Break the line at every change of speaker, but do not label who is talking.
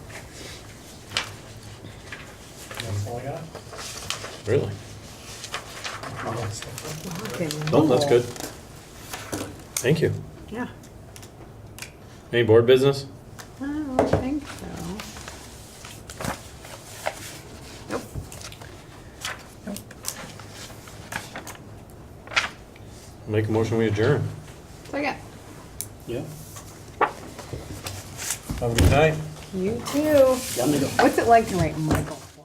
Really?
Okay,
No, that's
cool.
good. Thank you.
Yeah,
Any board business?
I don't think so. Nope.
Make a motion, we adjourn.
So yeah,
Yeah.
Have a good night.
you too.
Yeah, I'm gonna go.
What's it like to write Michael?